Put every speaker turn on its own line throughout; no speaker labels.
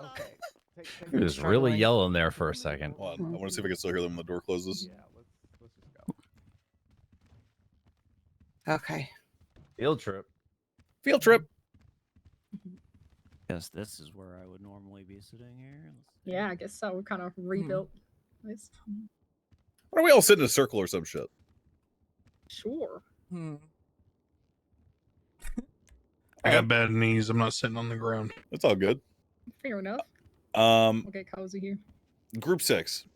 Okay. Take- take
He
the
was
turn
really
lane.
yelling there for a second.
Hold on. I want to see if I can still hear them when the door closes.
Yeah, let's let's just go.
Okay.
Field trip.
Field trip.
Guess this is where I would normally be sitting here. Let's see.
Yeah, I guess so. We kind of
Hmm.
rebuilt this.
Why don't we all sit in a circle or some shit?
Sure.
Hmm.
I got bad knees. I'm not sitting on the ground.
That's all good.
Fair enough.
Um,
We'll get cozy here.
group six.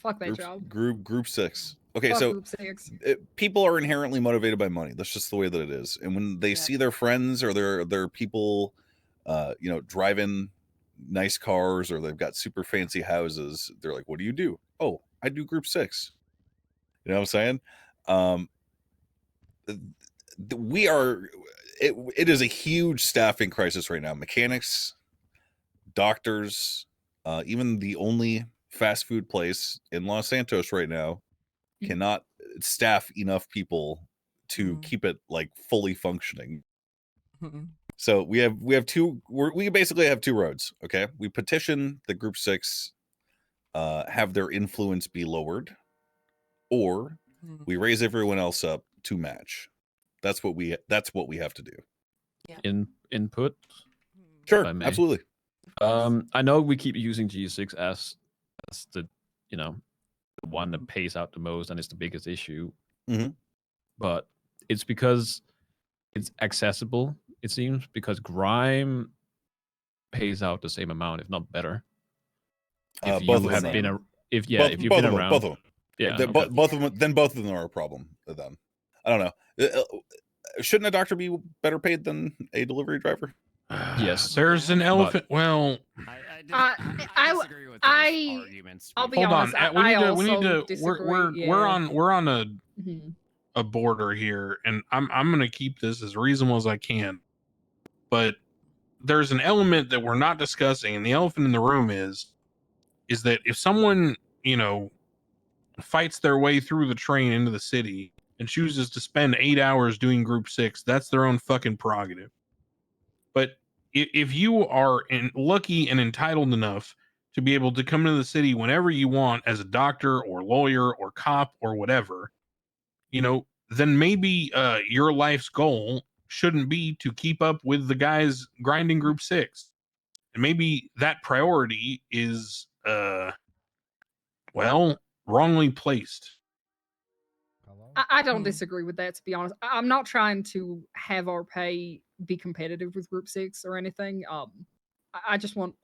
Fuck that
Group,
job.
group group six. Okay,
Fuck
so
group six.
it, people are inherently motivated by money. That's just the way that it is. And when they
Yeah.
see their friends or their their people, uh, you know, driving nice cars or they've got super fancy houses, they're like, "What do you do?" Oh, I do group six. You know what I'm saying? Um, th- th- we are. It, it is a huge staffing crisis right now. Mechanics, doctors, uh, even the only fast food place in Los Santos right now
Mm.
cannot staff enough people to
Mm.
keep it like fully functioning.
Hmm.
So we have we have two we're, we basically have two roads. Okay, we petition the group six, uh, have their influence be lowered, or
Hmm.
we raise everyone else up to match. That's what we that's what we have to do.
in input.
Hmm.
Sure,
I may.
absolutely.
Um, I know we keep using G6 as as the you know the one that pays out the most and is the biggest issue,
Mhm.
but it's because it's accessible. It seems because Grime pays out the same amount, if not better.
Uh,
if
both
you
of
have
them.
been
are.
a, if yeah,
both,
if you've
both
been
of them,
around,
both of them.
yeah,
Then
okay.
bo- both of them, then both of them are a problem. to Them, I don't know. Uh, uh, Shouldn't a doctor be better paid than a delivery driver?
Yes,
There's an elephant. well,
I, I, dis-
I- Uh, I
I
w-
disagree with those
I-
arguments.
I'll
we-
be
hold on.
honest, I-
uh, we
I
need to. We need
also
to. We're we're,
disagree,
we're
yeah.
on we're on a
hmm
a border here, and I'm I'm gonna keep this as reasonable as I can. But there's an element that we're not discussing, and the elephant in the room is is that if someone, you know, fights their way through the train into the city and chooses to spend eight hours doing group six, that's their own fucking prerogative. But if, if you are in, lucky and entitled enough to be able to come into the city whenever you want as a doctor or lawyer or cop or whatever, you know, then maybe uh, your life's goal shouldn't be to keep up with the guys grinding group six. And maybe that priority is, uh, well, wrongly placed.
Hello?
I, I don't
Hmm.
disagree with that, to be honest. I, I'm not trying to have our pay be competitive with Group Six or anything. Um, I, I just want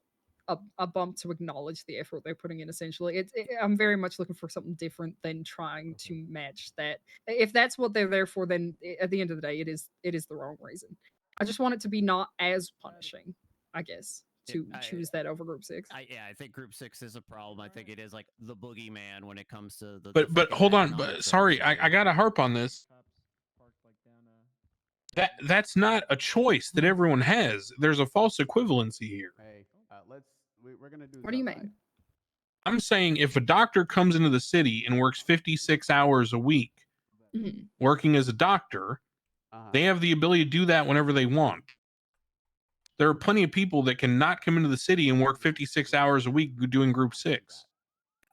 a, a bump to acknowledge the effort they're putting in. Essentially, it's it, I'm very much looking for something different than trying to match that. I- If that's what they're there for, then i- at the end of the day, it is it is the wrong reason. I just want it to be not as punishing, I guess,
Yeah,
to
I-
choose that over Group Six.
I, yeah, I think Group Six is a problem. I think it is like the boogeyman when it comes to the.
But but hold on, but sorry, I, I gotta harp on this. That that's not a choice that everyone has. There's a false equivalency here.
Hey, uh, let's. We, we're gonna do.
What do you
this outside.
mean?
I'm saying if a doctor comes into the city and works 56 hours a week
Mhm.
working as a doctor,
Uh-huh.
they have the ability to do that whenever they want. There are plenty of people that cannot come into the city and work 56 hours a week doing group six.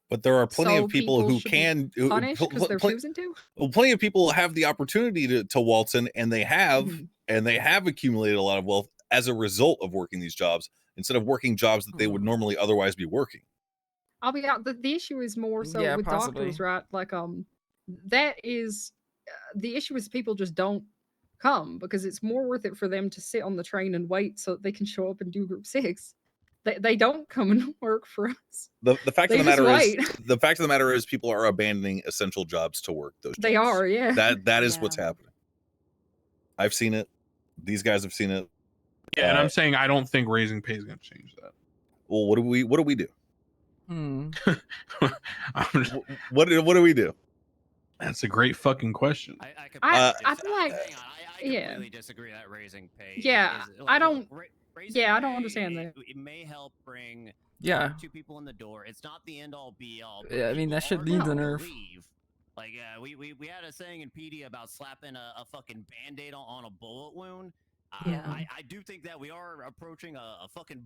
But there are plenty
So
of people,
people
who
should be
can who- who-
Punish
pl-
because
pl-
they're
pl-
choosing to.
well, plenty of people have the opportunity to, to waltz in and they have
Mhm.
and they have accumulated a lot of wealth as a result of working these jobs instead of working jobs that they would
Mm-hmm.
Mhm.
normally otherwise be working
I'll be out. The, the issue is more so
Yeah,
with doctors,
possibly.
right? Like, um, that is uh, the issue is people just don't come because it's more worth it for them to sit on the train and wait so that they can show up and do group six. They, they don't come and work for us.
the, the fact
They
of the
just
matter is
wait.
the fact of the matter is people are abandoning essential jobs to work those jobs.
They are, yeah.
that that is
Yeah.
what's happening i've seen it these guys have seen it
Yeah, and
Uh,
I'm saying I don't think raising pay is going to change that.
well what do we what do we do
Hmm.
I'm just-
Wh- what do, what do we do
that's a great fucking question.
I, I, completely
I-
I
dis-
feel like-
hang on, I, I
yeah.
completely disagree that raising pay.
Yeah,
is-
I
like,
don't-
ra- raising
yeah, I don't understand
pay,
that.
It, it may help bring
Yeah.
two people in the door. It's not the end all be all. but
Yeah, I mean,
people
that should
are
leave the
gonna
nerve.
leave. Like uh, we, we we had a saying in PD about slapping a, a fucking band-aid on, on a bullet wound. I,
Yeah.
I, I do think that we are approaching a, a fucking